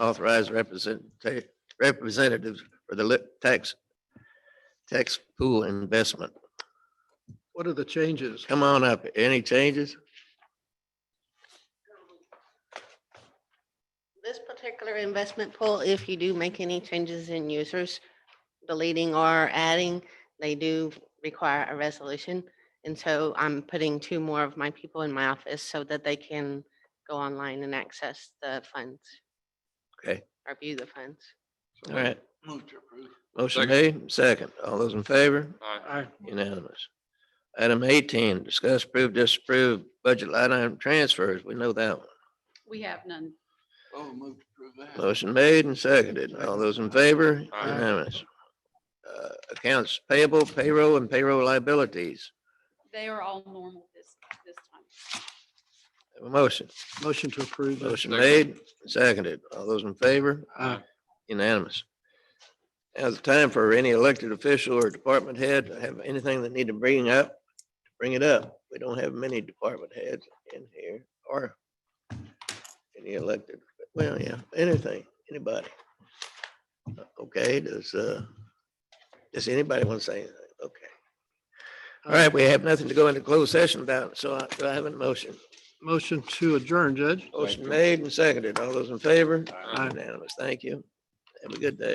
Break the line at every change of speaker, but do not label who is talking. authorize representative, representatives for the lit tax, tax pool investment.
What are the changes?
Come on up. Any changes?
This particular investment pool, if you do make any changes in users, deleting or adding, they do require a resolution. And so I'm putting two more of my people in my office so that they can go online and access the funds.
Okay.
Or view the funds.
All right.
Move to approve.
Motion made, second. All those in favor? Unanimous. Item eighteen, discuss, approve, disapprove budget line item transfers. We know that one.
We have none.
Oh, move to approve that.
Motion made and seconded. All those in favor?
Aye.
Unanimous. Uh, Accounts payable, payroll, and payroll liabilities.
They are all normal this, this time.
Have a Motion,
Motion to approve. that.
motion made, seconded. All those in favor?
Aye.
Unanimous. Now's the time for any elected official or department head to have anything that need to bring up, bring it up. We don't have many department heads in here or any elected, well, yeah, anything, anybody. Okay, does, uh, does anybody want to say anything? Okay. All right, we have nothing to go into closed session about, so I, do I have a motion.
Motion to adjourn, Judge.
Motion made and seconded. All those in favor?
Aye.
Unanimous. Thank you. Have a good day.